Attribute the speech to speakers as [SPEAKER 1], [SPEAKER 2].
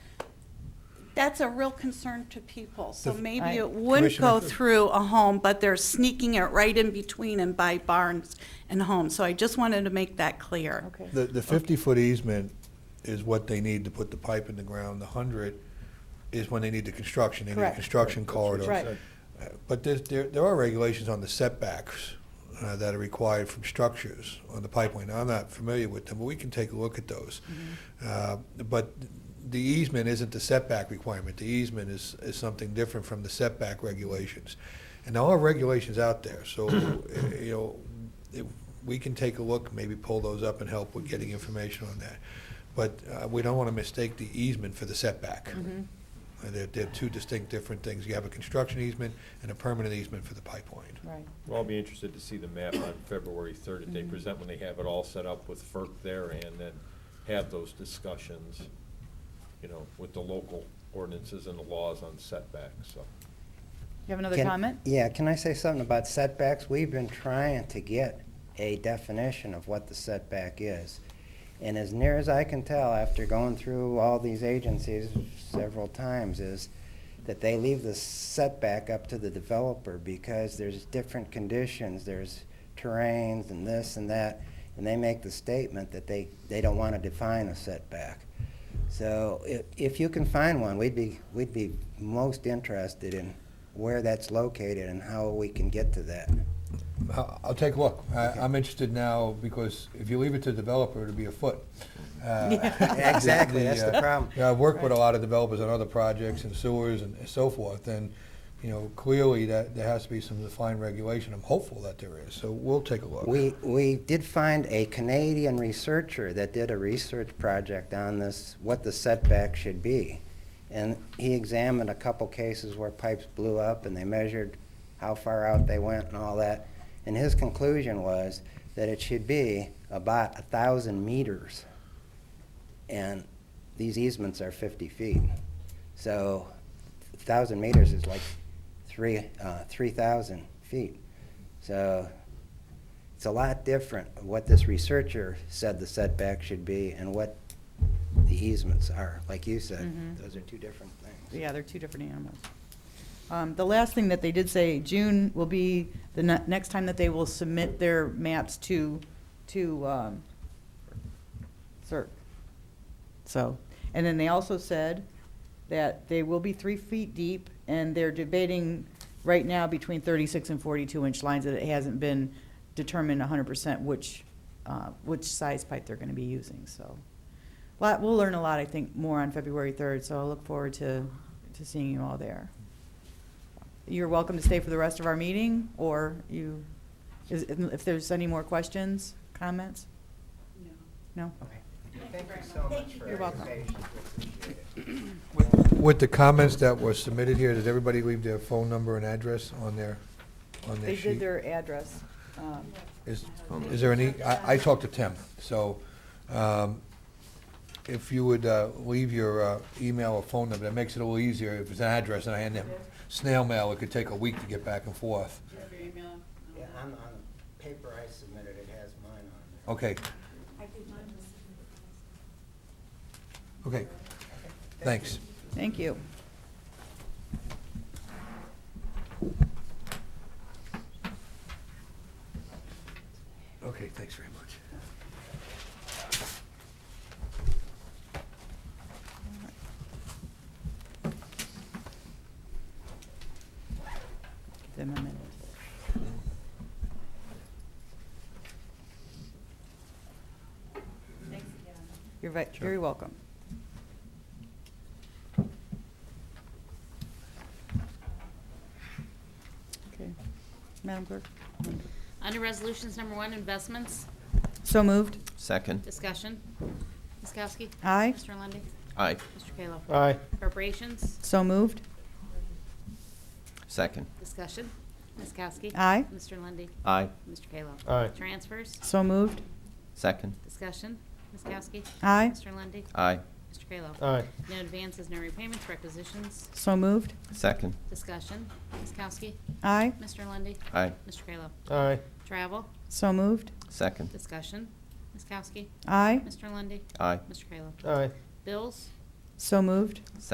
[SPEAKER 1] that's a real concern to people. So
[SPEAKER 2] The-
[SPEAKER 1] maybe
[SPEAKER 3] Right.
[SPEAKER 1] it wouldn't go
[SPEAKER 2] Commissioner?
[SPEAKER 1] through a home, but they're sneaking it right in between and by barns and homes. So I just wanted to make that clear.
[SPEAKER 3] Okay.
[SPEAKER 2] The, the fifty-foot easement is what they need to put the pipe in the ground. The hundred is when they need the construction, they need a
[SPEAKER 3] Correct.
[SPEAKER 2] construction corridor.
[SPEAKER 3] Right.
[SPEAKER 2] Uh, But there's, there, there are regulations on the setbacks uh, that are required from structures on the pipeline. I'm not familiar with them, but we can take a look at those. Uh, But the easement isn't the setback requirement. The easement is, is something different from the setback regulations. And there are regulations out there, so, uh, you know, it- we can take a look, maybe pull those up and help with getting information on that. But uh, we don't want to mistake the easement for the setback. Uh, They're, they're two distinct, different things. You have a construction easement and a permanent easement for the pipeline.
[SPEAKER 3] Right.
[SPEAKER 4] Well, I'll be interested to see the map on February third that they present when they have it all set up with FERC there and then have those discussions, you know, with the local ordinances and the laws on setbacks, so.
[SPEAKER 3] You have another
[SPEAKER 5] Can-
[SPEAKER 3] comment?
[SPEAKER 5] Yeah, can I say something about setbacks? We've been trying to get a definition of what the setback is. And as near as I can tell, after going through all these agencies several times, is that they leave the setback up to the developer because there's different conditions, there's terrains and this and that, and they make the statement that they, they don't want to define a setback. So if, if you can find one, we'd be, we'd be most interested in where that's located and how we can get to that.
[SPEAKER 2] I'll, I'll take a look. I,
[SPEAKER 5] Okay.
[SPEAKER 2] I'm interested now because if you leave it to the developer, it'll be a foot. Uh,
[SPEAKER 5] Yeah, exactly, that's the
[SPEAKER 2] uh,
[SPEAKER 5] problem.
[SPEAKER 2] Yeah, I've worked with a lot of developers on other projects and sewers and so forth, and, you know, clearly that, there has to be some defined regulation. I'm hopeful that there is, so we'll take a look.
[SPEAKER 5] We, we did find a Canadian researcher that did a research project on this, what the setback should be. And he examined a couple cases where pipes blew up and they measured how far out they went and all that. And his conclusion was that it should be about a thousand meters. And these easements are fifty feet. So a thousand meters is like three, uh, three thousand feet. So it's a lot different what this researcher said the setback should be and what the easements are. Like you said,
[SPEAKER 3] Mhm.
[SPEAKER 5] those are two different things.
[SPEAKER 3] Yeah, they're two different animals. Um, The last thing that they did say, June will be the ne- next time that they will submit their maps to, to um, CERC. So, and then they also said that they will be three feet deep, and they're debating right now between 36 and 42-inch lines, that it hasn't been determined 100% which, uh, which size pipe they're going to be using, so. Lot, we'll learn a lot, I think, more on February 3rd, so I look forward to, to seeing you all there. You're welcome to stay for the rest of our meeting, or you, is- if there's any more questions, comments? No? Okay.
[SPEAKER 5] Thank you so much for
[SPEAKER 3] You're welcome.
[SPEAKER 2] With the comments that were submitted here, did everybody leave their phone number and address on their, on their
[SPEAKER 3] They
[SPEAKER 2] sheet?
[SPEAKER 3] did their address. um,
[SPEAKER 2] Is, is there any, I, I talked to Tim, so, um, if you would, uh, leave your, uh, email or phone number, that makes it a little easier, if it's an address and I hand them snail mail, it could take a week to get back and forth.
[SPEAKER 5] Yeah, on, on the paper I submitted, it has mine on
[SPEAKER 2] Okay. Okay, thanks.
[SPEAKER 3] Thank you.
[SPEAKER 2] Okay, thanks very much.
[SPEAKER 3] Give them a minute. You're ve- very welcome. Okay. Madam Clerk?
[SPEAKER 6] Under Resolutions Number One, Investments,
[SPEAKER 3] So moved.
[SPEAKER 7] Second.
[SPEAKER 6] Discussion. Ms. Kowski?
[SPEAKER 3] Aye.
[SPEAKER 6] Mr. Lundy,
[SPEAKER 7] Aye.
[SPEAKER 6] Mr. Kayla?
[SPEAKER 4] Aye.
[SPEAKER 6] Appropriations,
[SPEAKER 3] So moved.
[SPEAKER 7] Second.
[SPEAKER 6] Discussion. Ms. Kowski?
[SPEAKER 3] Aye.
[SPEAKER 6] Mr. Lundy,
[SPEAKER 7] Aye.
[SPEAKER 6] Mr. Kayla?
[SPEAKER 4] Aye.
[SPEAKER 6] Transfers,
[SPEAKER 3] So moved.
[SPEAKER 7] Second.
[SPEAKER 6] Discussion. Ms. Kowski?
[SPEAKER 3] Aye.
[SPEAKER 6] Mr. Lundy,
[SPEAKER 7] Aye.
[SPEAKER 6] Mr. Kayla?
[SPEAKER 4] Aye.
[SPEAKER 6] No advances, no repayments, requisitions,
[SPEAKER 3] So moved.
[SPEAKER 7] Second.
[SPEAKER 6] Discussion. Ms. Kowski?
[SPEAKER 3] Aye.
[SPEAKER 6] Mr. Lundy,
[SPEAKER 7] Aye.
[SPEAKER 6] Mr. Kayla?
[SPEAKER 4] Aye.
[SPEAKER 6] Travel,
[SPEAKER 3] So moved.
[SPEAKER 7] Second.
[SPEAKER 6] Discussion. Ms. Kowski?
[SPEAKER 3] Aye.
[SPEAKER 6] Mr. Lundy,
[SPEAKER 7] Aye.
[SPEAKER 6] Mr. Kayla?
[SPEAKER 4] Aye.
[SPEAKER 6] Bills,
[SPEAKER 3] So moved.